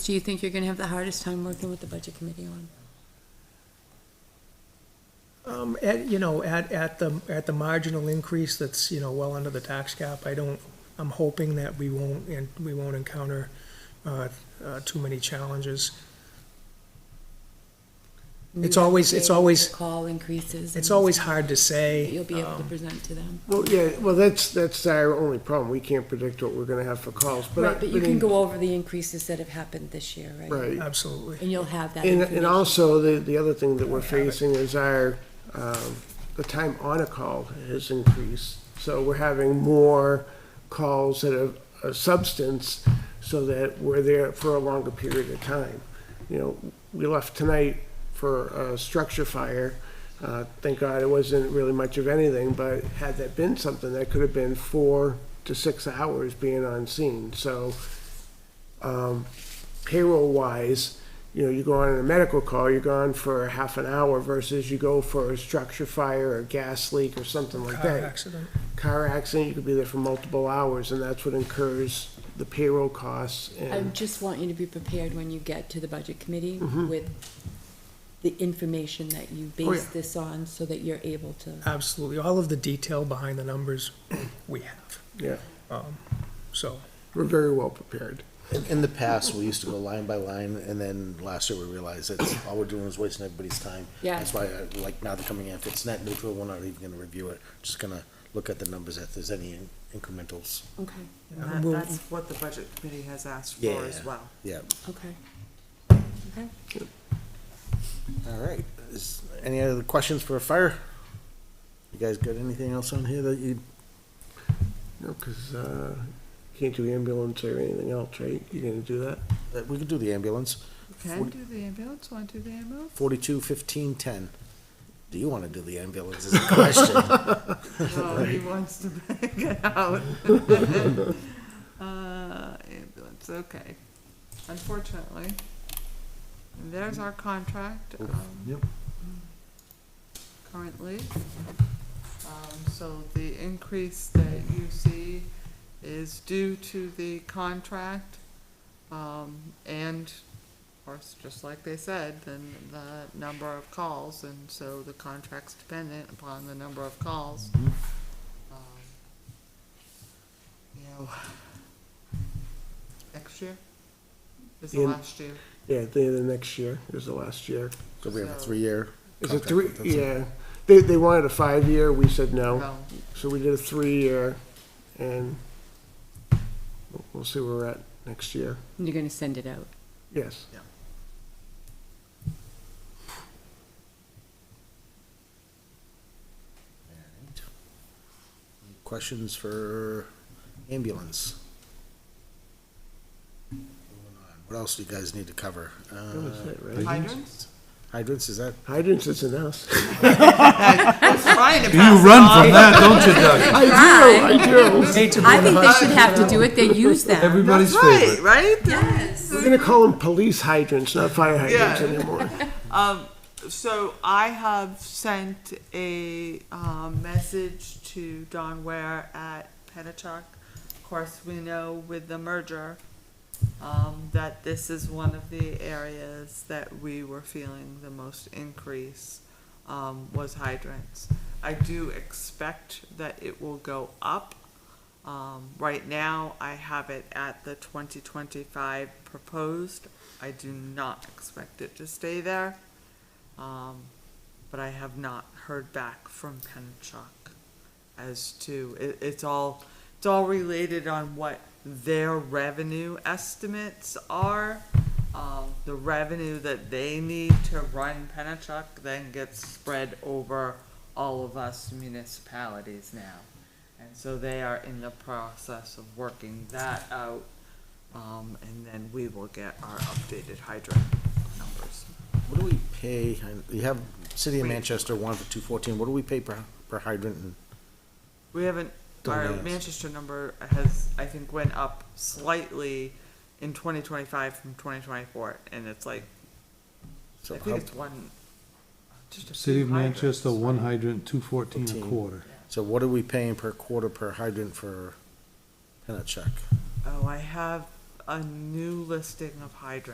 Do you think you're gonna have the hardest time working with the budget committee on? Um, at, you know, at, at the, at the marginal increase that's, you know, well under the tax cap, I don't, I'm hoping that we won't, and we won't encounter, uh, uh, too many challenges. It's always- it's always- Call increases. It's and always hard to that say. You'll be um, able to present to them. Well, yeah, well, that's, that's our only problem. We can't predict what we're gonna have for calls, but. I- Right, but you can in- go over the increases that have happened this year, right? Right. Absolutely. And you'll have that And, and information. also, the, the other thing that we're facing is our, um, the time on a call has increased. So we're having more calls that have a substance so that we're there for a longer period of time. You know, we left tonight for a structure fire. Uh, thank God it wasn't really much of anything, but had that been something, that could have been four to six hours being on scene. So, um, payroll wise, you know, you go on a medical call, you're gone for half an hour versus you go for a structure fire or gas leak or something like Car that. accident. Car accident, you could be there for multiple hours and that's what incurs the payroll costs I and, just want you to be prepared when you get to the budget committee with the information that you Mm-hmm. Oh, base yeah. this on, so that you're able to. Absolutely. All of the detail behind the numbers we have, yeah, so. we're very well prepared. In, in the past, we used to go line by line, and then last year we realized that all we're doing is wasting everybody's time. Yeah. That's why, uh, like, now they're coming in, if it's net neutral, we're not even gonna review it, just gonna look at the numbers, if there's any in- incrementals. Okay, And We'll- that, that's what the budget committee has asked Yeah, for as yeah. well. Yeah, okay. Okay. all right. Is, any other questions for fire? You guys got anything else on here that you, You know, cause, uh, can't do ambulance or anything else, right? You're gonna do that? that we could do the ambulance? Can do the ambulance, want to do the ambulance? Forty-two, fifteen, ten. Do you wanna do the ambulance is the question? Oh, he wants to back it out. Uh, ambulance, okay. Unfortunately, there's our contract, um, Yep. currently. Um, so the increase that you see is due to the contract, um, and Of course, just like they said, then the number of calls, and so the contract's dependent upon the number of calls. Um, You know, next year is the In- last year. Yeah, at the end of next year is the last year. So we have a So- three-year. Is it contract three, with them, so- yeah. They, they wanted a five-year, we said no. So, So we did a three-year and we'll- we'll see where we're at next year. You're gonna send it out. Yes. Alright. Any Questions for ambulance? Moving on. What else do you guys need to cover? That was Uh, it, right? Hydrants? Hydrants, is that? Hydrants isn't us. I was trying to You pass it run on. from that, don't you, Doug? I do. Hate to think they should have to do it, they use that. Everybody's That's right, favorite. right? We're gonna call them police hydrants, not fire hydrants Yeah. anymore. Um, so I have sent a, um, message to Don Ware at Penachuk. Of course, we know with the merger, um, that this is one of the areas that we were feeling the most increase, um, was hydrants. I do expect that it will go up. Um, right now, I have it at the twenty twenty-five proposed. I do not expect it to stay there. Um, but I have not heard back from Pennachuck as to, it, it's all, it's all related on what their revenue estimates are. Um, the revenue that they need to run Pennachuck then gets spread over all of us municipalities now. And so they are in the process of working that out, um, and then we will get our updated hydrant numbers. What do we pay? I- You have City of We- Manchester one for two fourteen. What do we pay per, per hydrant? And We haven't, Don't our ask. Manchester number has, I think, went up slightly in twenty twenty-five from twenty twenty-four, and it's like, I so think how, it's one. just a City few of Manchester, hydrants. one hydrant, two fourteen a Fourteen. quarter. so what are we paying per quarter per hydrant for Pennachuck? Oh, I have a new listing of hydrants.